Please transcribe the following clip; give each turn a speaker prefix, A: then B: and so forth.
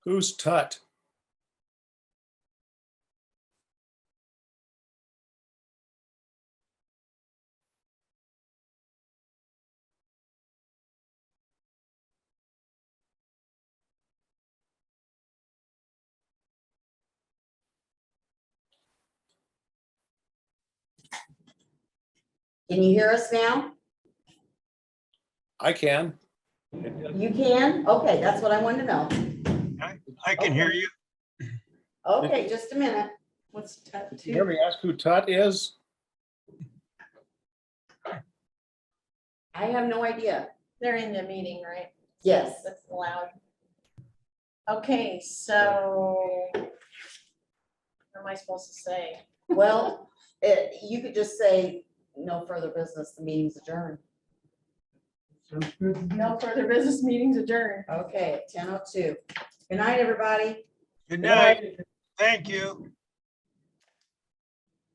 A: Who's Tut?
B: Can you hear us now?
A: I can.
B: You can? Okay, that's what I wanted to know.
C: I can hear you.
B: Okay, just a minute.
D: What's Tut
A: Did you ever ask who Tut is?
B: I have no idea.
D: They're in the meeting, right?
B: Yes,
D: That's loud. Okay, so what am I supposed to say?
B: well, it, you could just say, no further business, the meeting's adjourned.
D: No further business meetings adjourned.
B: Okay, ten oh two. Good night, everybody.
C: Good night. Thank you.